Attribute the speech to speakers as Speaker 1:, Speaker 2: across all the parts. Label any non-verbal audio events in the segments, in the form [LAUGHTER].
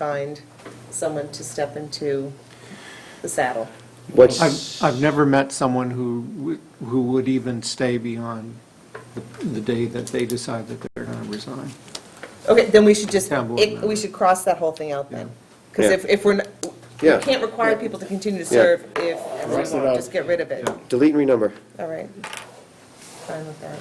Speaker 1: find someone to step into the saddle.
Speaker 2: What's,
Speaker 3: I've, I've never met someone who, would- who would even stay beyond the, the day that they decide that they're gonna resign.
Speaker 1: Okay, then we should just,
Speaker 3: Town board
Speaker 1: it-
Speaker 3: member.
Speaker 1: we should cross that whole thing out then. Because
Speaker 2: Yeah.
Speaker 1: if, if we're, n- we
Speaker 2: Yeah.
Speaker 1: can't require people to continue to
Speaker 2: Yeah.
Speaker 1: serve if
Speaker 4: Cross it
Speaker 1: everyone,
Speaker 4: out.
Speaker 1: just get rid of it.
Speaker 2: delete and renumber.
Speaker 1: All right. Fine with that.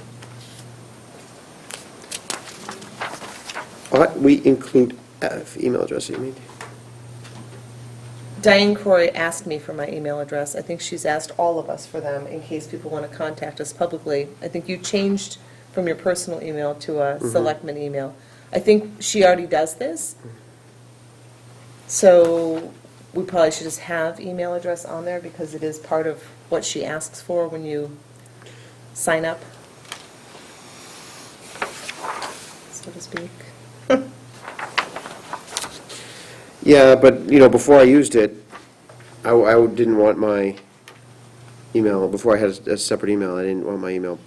Speaker 2: Ought Uh, we include F, email address, you mean?
Speaker 1: Diane Croy asked me for my email address. I think she's asked all of us for them in case people want to contact us publicly. I think you changed from your personal email to a selectman email. I think she already does this. So we probably should just have email address on there because it is part of what she asks for when you sign up, so to speak. [LAUGHS]
Speaker 2: Yeah, but, you know, before I used it, I, I didn't want my email, before I had a separate email, I didn't want my email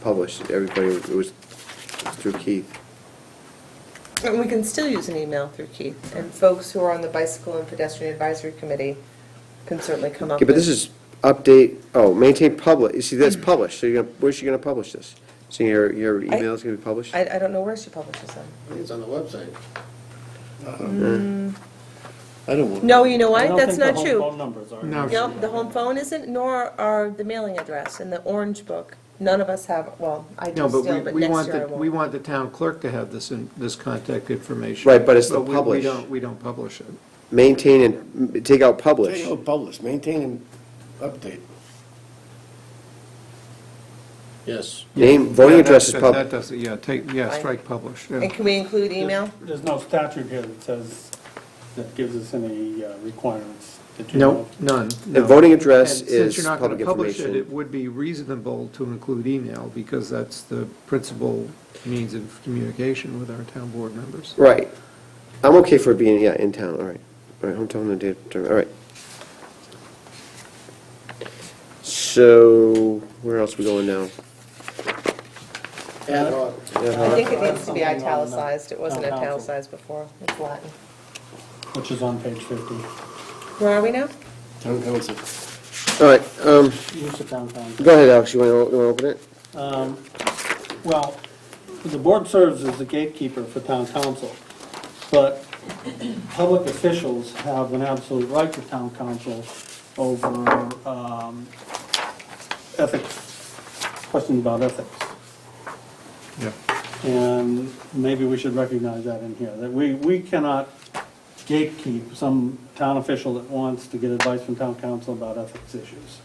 Speaker 2: published. Everybody, it was through Keith.
Speaker 1: And we can still use an email through Keith, and folks who are on the Bicycle and Pedestrian Advisory Committee can certainly come up
Speaker 2: Okay,
Speaker 1: with.
Speaker 2: but this is update, oh, maintain public, you see, that's published, so you're gonna, where's she gonna publish this? So your, your email's gonna be published?
Speaker 1: I, I don't know where she publishes them.
Speaker 4: It's on the website. Uh, I don't want.
Speaker 1: No, you know what, that's not true.
Speaker 5: numbers are.
Speaker 3: No,
Speaker 1: No, the home phone isn't, nor are the mailing address and the orange book. None of us have, well, I do
Speaker 3: No, but
Speaker 1: still,
Speaker 3: we,
Speaker 1: but
Speaker 3: we
Speaker 1: next
Speaker 3: want,
Speaker 1: year I
Speaker 3: the we
Speaker 1: won't.
Speaker 3: want the town clerk to have this, in- this contact information.
Speaker 2: Right, but it's the
Speaker 3: we-
Speaker 2: publish.
Speaker 3: We don't, we don't publish it.
Speaker 2: Maintain and, m- take out publish.
Speaker 4: Maintain or publish, maintain and update. Yes.
Speaker 2: Name, voting
Speaker 3: Yeah,
Speaker 2: address is
Speaker 3: that-
Speaker 2: public.
Speaker 3: That doesn't, yeah, take, yeah, strike publish, yeah.
Speaker 1: And can we include email?
Speaker 5: There's no statute here that says, that gives us any uh, requirements that you know
Speaker 3: No,
Speaker 5: of.
Speaker 3: none,
Speaker 2: The
Speaker 3: no.
Speaker 2: voting address
Speaker 3: And
Speaker 2: is
Speaker 3: Since you're not going
Speaker 2: public
Speaker 3: to publish it,
Speaker 2: information.
Speaker 3: it would be reasonable to include email, because that's the principal means of communication with our town board members.
Speaker 2: Right. I'm okay for being, yeah, in town, all right. All right, hometown and date, all right. So, where else we going now?
Speaker 4: Ad hoc.
Speaker 1: I think it needs to be italicized, it wasn't italicized before, it's Latin.
Speaker 5: Which is on page 50.
Speaker 1: Where are we now?
Speaker 4: Town council.
Speaker 2: All right, um,
Speaker 5: Use of town council.
Speaker 2: go ahead, Alex, you want to open it?
Speaker 5: Um, Well, the board serves as the gatekeeper for town council, but public officials have an absolute right to town council over um, ethics, questions about ethics.
Speaker 3: Yeah.
Speaker 5: And maybe we should recognize that in here, that we, we cannot gatekeep some town official that wants to get advice from town council about ethics issues.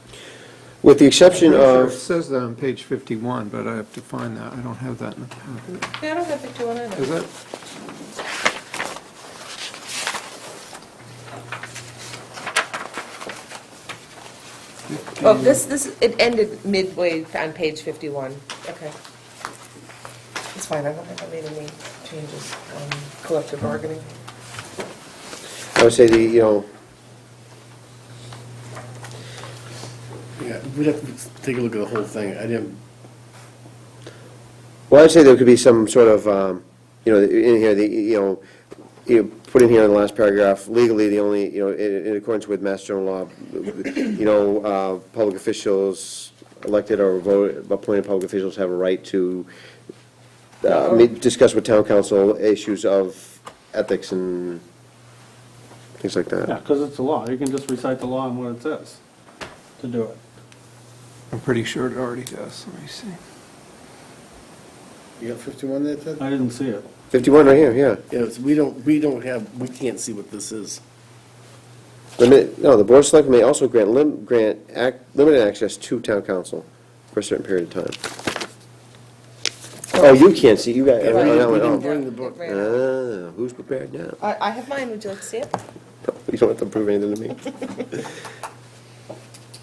Speaker 2: With the exception
Speaker 3: Pretty sure It
Speaker 2: of,
Speaker 3: says that on page 51, but I have to find that, I don't have that in the packet.
Speaker 1: Yeah, I don't have fifty-one
Speaker 3: Is
Speaker 1: either.
Speaker 3: that,
Speaker 2: Mm.
Speaker 1: Oh, this, this, it ended midway on page fifty-one, okay. It's fine, I don't think I made any changes on collective bargaining.
Speaker 2: I would say the, you know,
Speaker 4: Yeah, we'd have to take a look at the whole thing. I didn't,
Speaker 2: well, I'd say there could be some sort of, um, you know, in here, the, you know, you know, put in here in the last paragraph, legally, the only, you know, in in accordance with Mass General Law, you know, uh, public officials, elected or voted, appointed public officials have a right to uh, me- discuss with town council issues of ethics and things like
Speaker 5: Yeah,
Speaker 2: that.
Speaker 5: because it's the law, you can just recite the law and what it says to do it.
Speaker 3: I'm pretty sure it already does, let me see.
Speaker 4: you got 51 there, Ted?
Speaker 5: I didn't see it.
Speaker 2: 51 right here, yeah.
Speaker 4: Yes, we don't, we don't have, we can't see what this is.
Speaker 2: Limit, no, the board of selectmen may also grant lim, grant ac limited access to town council for a certain period of time. Oh, you can't see, you got,
Speaker 4: Yeah,
Speaker 2: oh,
Speaker 4: we-
Speaker 2: that
Speaker 4: we
Speaker 2: one,
Speaker 4: didn't
Speaker 2: oh.
Speaker 4: bring the book. Uh,
Speaker 1: Right.
Speaker 2: Ah, who's prepared now?
Speaker 1: I, I have mine, would you like to see it?
Speaker 2: [LAUGHS] You don't have to prove anything to me.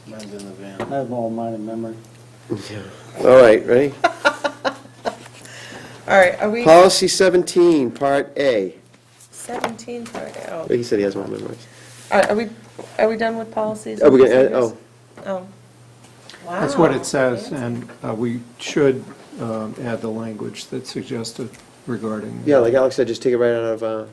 Speaker 4: Mine's in the van.
Speaker 5: I have all mine in memory.
Speaker 2: All right, ready?
Speaker 1: All right, are we
Speaker 2: Policy seventeen, part A.
Speaker 1: 17 part out?
Speaker 2: He said he has one memorized.
Speaker 1: All right, are we, are we done with policies?
Speaker 2: Oh, we're gonna add,
Speaker 1: and
Speaker 2: oh,
Speaker 1: procedures? Oh. Wow.
Speaker 3: That's what it says, and uh, we should um, add the language that's suggested regarding.
Speaker 2: yeah, like Alex said, just take it right out of, uh,